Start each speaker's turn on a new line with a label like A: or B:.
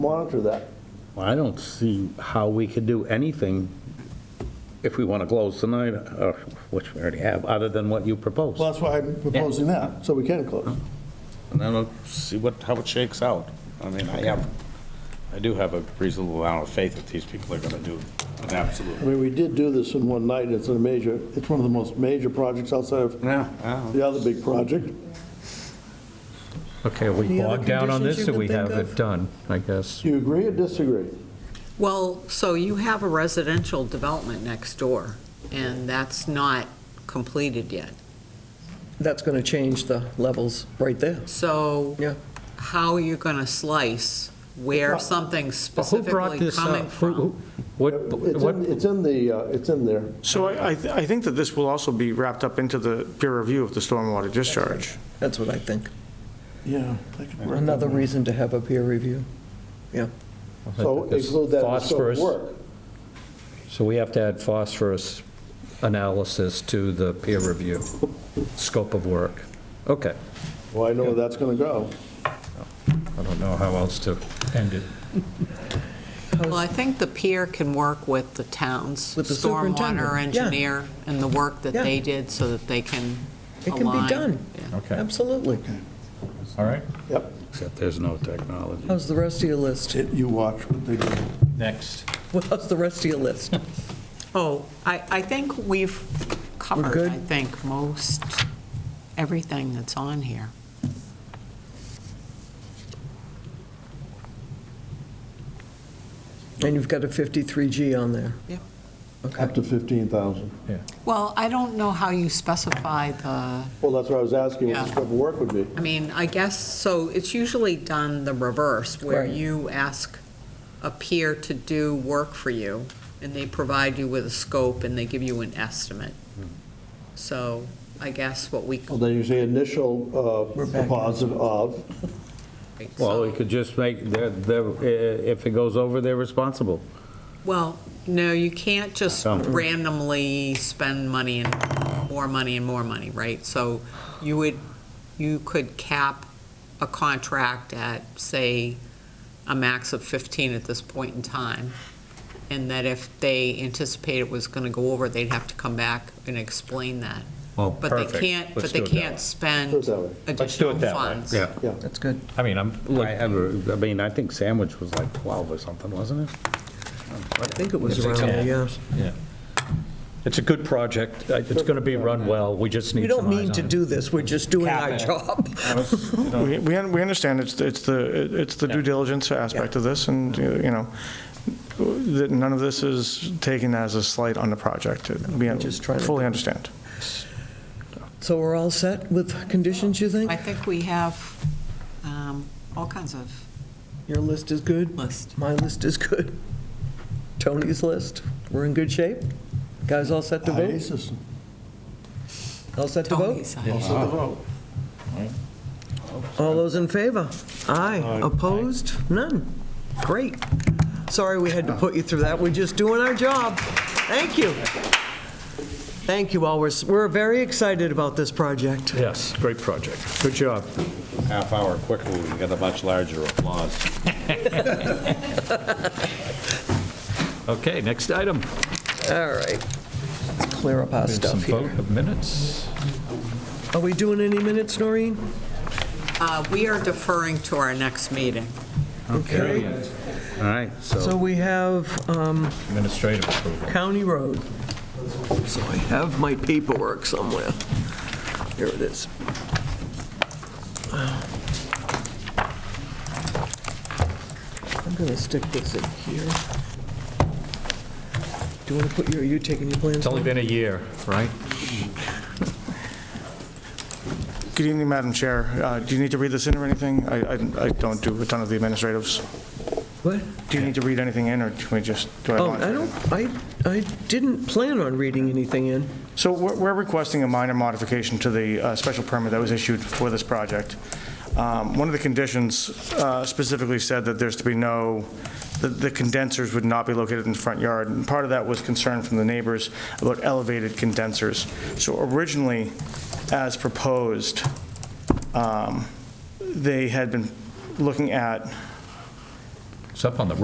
A: monitor that.
B: I don't see how we could do anything if we want to close tonight, or- which we already have, other than what you proposed.
A: Well, that's why I'm proposing that, so we can close.
B: And then we'll see what, how it shakes out. I mean, I have, I do have a reasonable amount of faith that these people are going to do an absolute.
A: I mean, we did do this in one night, it's a major, it's one of the most major projects outside of
B: Yeah.
A: the other big project.
C: Okay, are we
D: Any other
C: bogged down on
D: conditions
C: this,
D: you
C: or we
D: can
C: have
D: think
C: it
D: of?
C: done, I guess?
A: Do you agree or disagree?
D: Well, so you have a residential development next door, and that's not completed yet.
E: That's going to change the levels right there.
D: So
E: Yeah.
D: how are you going to slice where something's
C: But Who brought
D: specifically
C: this
D: coming
C: up? Who-
D: from?
C: who- What,
A: It's
C: what,
A: in, it's in the, uh, it's in there.
F: So I, I th- I think that this will also be wrapped up into the peer review of the stormwater discharge.
E: That's what I think.
A: Yeah.
E: Another reason to have a peer review. Yeah.
A: So
C: This
A: include that in the scope of
C: phosphorus.
A: work.
C: so we have to add phosphorus analysis to the peer review, scope of work. Okay,
A: Well, I know where that's going to go.
C: I don't know how else to end it.
D: Well, I think the peer can work with the town's
E: With the superintendent,
D: stormwater
E: yeah.
D: engineer and the work that
E: Yeah.
D: they did so that they can
E: It can
D: align.
E: be done.
D: Yeah.
C: Okay,
E: Absolutely.
C: all right.
A: Yep.
B: Except there's no technology.
E: How's the rest of your list?
A: You watch what they do.
C: Next.
E: Well, How's the rest of your list?
D: Oh, I, I think we've covered,
E: good?
D: I think, most, everything that's on here.
E: And you've got a 53G on there.
A: Up to 15,000.
D: Well, I don't know how you specify the,
A: Well, that's what I was asking, what the
D: Yeah.
A: scope of work would be.
D: I mean, I guess, so it's usually done the reverse, where
E: Right.
D: you ask a peer to do work for you, and they provide you with a scope, and they give you an estimate.
B: Hmm.
D: So I guess what we,
A: Well, then you say initial uh,
E: We're back.
A: deposit of,
B: Well, we could just make, they're, they're, eh, if it goes over, they're responsible.
D: well, no, you can't just
B: No.
D: randomly spend money and more money and more money, right? So you would, you could cap a contract at, say, a max of 15 at this point in time, and that if they anticipate it was going to go over, they'd have to come back and explain that.
C: Oh,
D: But they can't, but they can't spend
A: Put it that way.
C: Let's do
D: additional
C: it that way.
D: funds.
B: Yeah.
A: yeah.
E: That's good.
C: I mean, I'm,
B: I have, a- I mean, I think sandwich was like 12 or something, wasn't it?
E: I think it was around, there, yeah.
C: it's a good project, I- it's going to be run well, we just
E: We
C: need
E: don't
C: some
E: mean
C: eyes
E: to
C: on it.
E: do this, we're just doing
C: Cap
E: our
C: it.
E: job.
F: We, we un- we understand it's, the- it's the, it's the due diligence aspect of this, and, uh, you know, that none of this is taken as a slight on the project. We
E: just trying to-
F: fully understand.
E: So we're all set with conditions, you think?
D: I think we have um, all kinds of
E: Your list is good?
D: list.
E: My list is good. Tony's list, we're in good shape? Guys all set to vote?
A: IASIS.
E: All set to vote?
D: Tony's.
E: All those in favor? Aye. Opposed? None. Great. Sorry we had to put you through that. We're just doing our job. Thank you. Thank you all. We're, s- we're very excited about this project.
C: Yes, great project, good job.
B: Half hour quicker, we can get a much larger applause.
C: Okay, next item.
E: All right. Let's clear up our
C: We have some
E: stuff here.
C: vote of minutes.
E: Are we doing any minutes, Noreen?
D: Uh, We are deferring to our next meeting.
E: Okay.
B: All right,
E: So
B: so
E: we have um,
C: Administrative approval.
E: County Road. So I have my paperwork somewhere. Here it is. I'm going to stick this in here. Do you want to put your, are you taking your plans?
C: It's only been a year, right?
F: Good evening, Madam Chair. Uh, Do you need to read this in or anything? I, I I don't do a ton of the administratives.
E: What?
F: Do you need to read anything in, or can we just? do
E: Oh,
F: want-
E: I don't, I, I didn't plan on reading anything in.
F: So we're we're requesting a minor modification to the uh, special permit that was issued for this project. Um, One of the conditions uh, specifically said that there's to be no, that the condensers would not be located in the front yard, and part of that was concern from the neighbors about elevated condensers. So originally, as proposed, um, they had been looking at
G: It's up on the roof.